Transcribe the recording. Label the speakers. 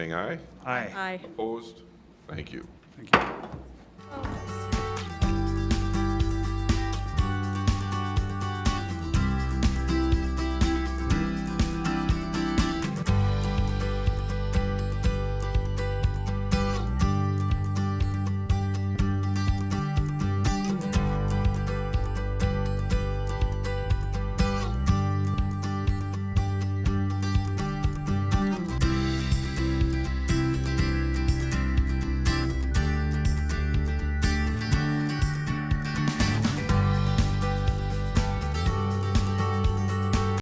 Speaker 1: Saying aye?
Speaker 2: Aye.
Speaker 3: Aye.
Speaker 1: Opposed? Thank you.
Speaker 2: Thank you.
Speaker 3: Oh, nice.